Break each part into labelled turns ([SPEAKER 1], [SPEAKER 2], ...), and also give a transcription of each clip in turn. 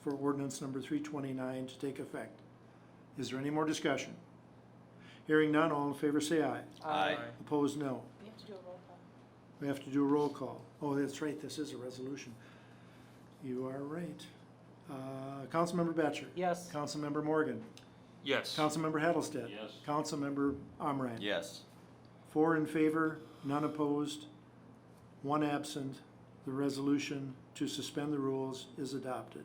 [SPEAKER 1] for ordinance number three twenty-nine to take effect. Is there any more discussion? Hearing none, all in favor say aye.
[SPEAKER 2] Aye.
[SPEAKER 1] Opposed, no.
[SPEAKER 3] You have to do a roll call.
[SPEAKER 1] We have to do a roll call. Oh, that's right, this is a resolution. You are right. Uh, Councilmember Batchor.
[SPEAKER 4] Yes.
[SPEAKER 1] Councilmember Morgan.
[SPEAKER 2] Yes.
[SPEAKER 1] Councilmember Hattlestead.
[SPEAKER 5] Yes.
[SPEAKER 1] Councilmember Omerion.
[SPEAKER 2] Yes.
[SPEAKER 1] Four in favor, none opposed, one absent. The resolution to suspend the rules is adopted.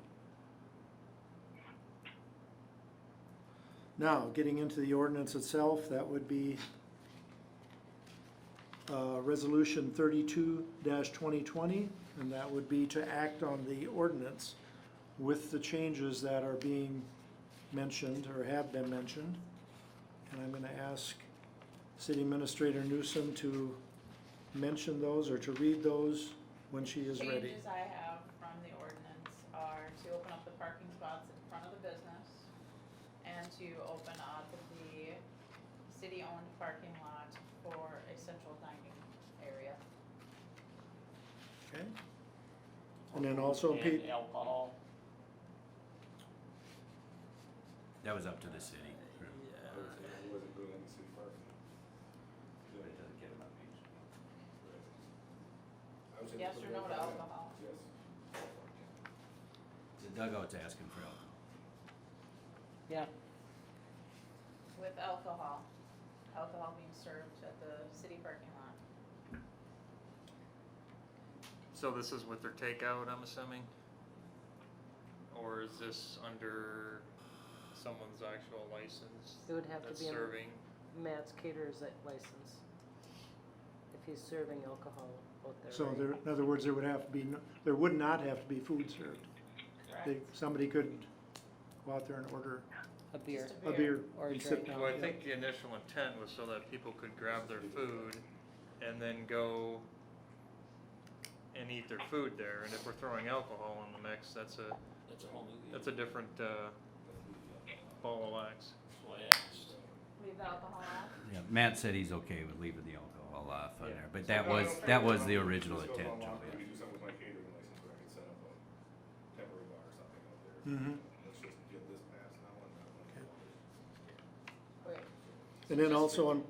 [SPEAKER 1] Now, getting into the ordinance itself, that would be uh, Resolution thirty-two twenty twenty, and that would be to act on the ordinance with the changes that are being mentioned or have been mentioned. And I'm gonna ask City Administrator Newsom to mention those or to read those when she is ready.
[SPEAKER 3] Changes I have from the ordinance are to open up the parking spots in front of the business and to open up the city-owned parking lot for a central dining area.
[SPEAKER 1] Okay? And then also, Pete,
[SPEAKER 5] And alcohol.
[SPEAKER 6] That was up to the city.
[SPEAKER 3] Yes or no to alcohol?
[SPEAKER 6] The dugout's asking for help.
[SPEAKER 4] Yeah,
[SPEAKER 3] With alcohol, alcohol being served at the city parking lot.
[SPEAKER 2] So this is with their takeout, I'm assuming? Or is this under someone's actual license?
[SPEAKER 4] It would have to
[SPEAKER 2] that's
[SPEAKER 4] be in-
[SPEAKER 2] Serving,
[SPEAKER 4] Matt's caterer's that license. If he's serving alcohol out there.
[SPEAKER 1] so
[SPEAKER 4] right?
[SPEAKER 1] there, in other words, there would have to be, no- there would not have to be food served. They,
[SPEAKER 3] Correct?
[SPEAKER 1] somebody could go out there and order
[SPEAKER 4] A beer
[SPEAKER 3] Just
[SPEAKER 1] a beer.
[SPEAKER 4] or a
[SPEAKER 1] and sit
[SPEAKER 4] drink.
[SPEAKER 1] down.
[SPEAKER 2] well, I think the initial intent was so that people could grab their food and then go and eat their food there, and if we're throwing alcohol in the mix, that's a,
[SPEAKER 5] That's a whole new.
[SPEAKER 2] that's a different, uh, ball of wax.
[SPEAKER 3] Leave the alcohol out?
[SPEAKER 6] Yeah, Matt said he's okay with leaving the alcohol off on
[SPEAKER 2] Yeah.
[SPEAKER 6] there, but that was, that was the original intent, Joe.
[SPEAKER 7] We could do something with my catering license where I could set up a temporary bar or something out there.
[SPEAKER 1] Mhm.
[SPEAKER 7] Let's just get this passed now and that one.
[SPEAKER 3] Wait,
[SPEAKER 1] And then also on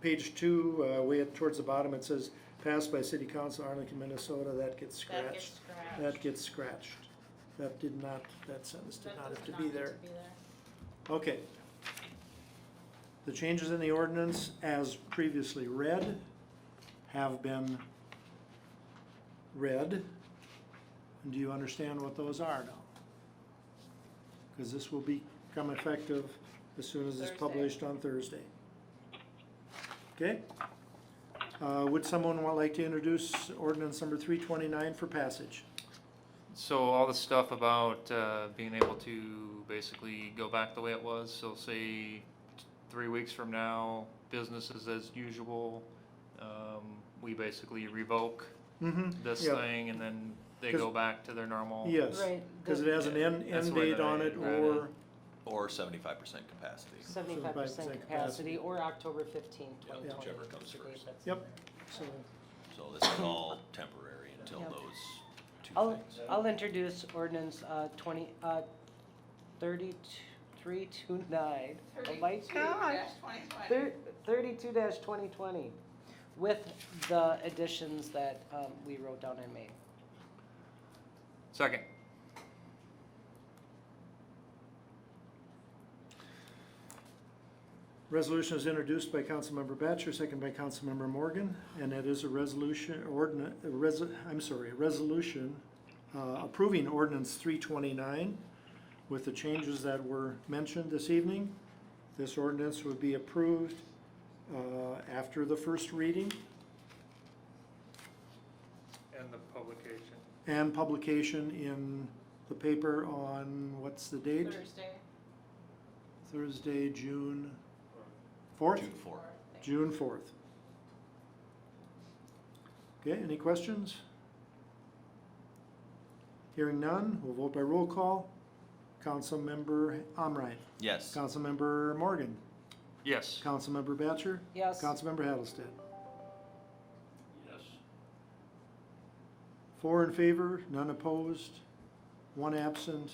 [SPEAKER 1] page two, uh, way at, towards the bottom, it says, passed by City Council, Arlington, Minnesota, that gets
[SPEAKER 3] that gets
[SPEAKER 1] scratched.
[SPEAKER 3] scratched.
[SPEAKER 1] That gets scratched. That did not, that sentence did
[SPEAKER 3] That
[SPEAKER 1] not
[SPEAKER 3] does
[SPEAKER 1] have to
[SPEAKER 3] not
[SPEAKER 1] be
[SPEAKER 3] need
[SPEAKER 1] there.
[SPEAKER 3] be there.
[SPEAKER 1] Okay. The changes in the ordinance as previously read have been read. Do you understand what those are now? Because this will become effective as soon as it's
[SPEAKER 3] Thursday.
[SPEAKER 1] published on Thursday. Okay? Uh, would someone wa- like to introduce ordinance number three twenty-nine for passage?
[SPEAKER 2] So all the stuff about uh, being able to basically go back the way it was. So say t- three weeks from now, business is as usual. Um, we basically revoke
[SPEAKER 1] Mm-hmm.
[SPEAKER 2] this
[SPEAKER 1] Yeah.
[SPEAKER 2] thing, and then they go
[SPEAKER 1] Because-
[SPEAKER 2] back to their normal.
[SPEAKER 1] Yes,
[SPEAKER 4] Right,
[SPEAKER 1] because it
[SPEAKER 4] the-
[SPEAKER 1] has an end,
[SPEAKER 2] That's
[SPEAKER 1] end
[SPEAKER 2] the way
[SPEAKER 1] date
[SPEAKER 2] that I
[SPEAKER 1] on it
[SPEAKER 2] read
[SPEAKER 1] or.
[SPEAKER 2] it.
[SPEAKER 8] Or seventy-five percent capacity.
[SPEAKER 4] Seventy-five percent
[SPEAKER 1] 75% capacity.
[SPEAKER 4] capacity or October fifteenth,
[SPEAKER 8] Yeah,
[SPEAKER 4] twenty twenty.
[SPEAKER 8] whichever comes first.
[SPEAKER 1] Yep. So,
[SPEAKER 8] So this is all temporary until
[SPEAKER 4] Yeah. Oh,
[SPEAKER 8] those two
[SPEAKER 4] I'll,
[SPEAKER 8] things.
[SPEAKER 4] I'll introduce ordinance, uh, twenty, uh, thirty-three two nine. Oh my gosh. Thir- Thirty-two twenty twenty, with the additions that, um, we wrote down and made.
[SPEAKER 2] Second.
[SPEAKER 1] Resolution is introduced by Councilmember Batchor, second by Councilmember Morgan, and it is a resolution, ordinance, res, I'm sorry, a resolution uh, approving ordinance three twenty-nine with the changes that were mentioned this evening. This ordinance would be approved, uh, after the first reading
[SPEAKER 2] And the publication.
[SPEAKER 1] and publication in the paper on, what's the date?
[SPEAKER 3] Thursday.
[SPEAKER 1] Thursday, June fourth?
[SPEAKER 8] June four.
[SPEAKER 3] Thank you.
[SPEAKER 1] June fourth. Okay, any questions? Hearing none, we'll vote by roll call. Councilmember Amrine,
[SPEAKER 8] Yes.
[SPEAKER 1] Councilmember Morgan,
[SPEAKER 2] Yes.
[SPEAKER 1] Councilmember Batchor,
[SPEAKER 4] Yes.
[SPEAKER 1] Councilmember Hattlestead.
[SPEAKER 5] Yes.
[SPEAKER 1] Four in favor, none opposed, one absent,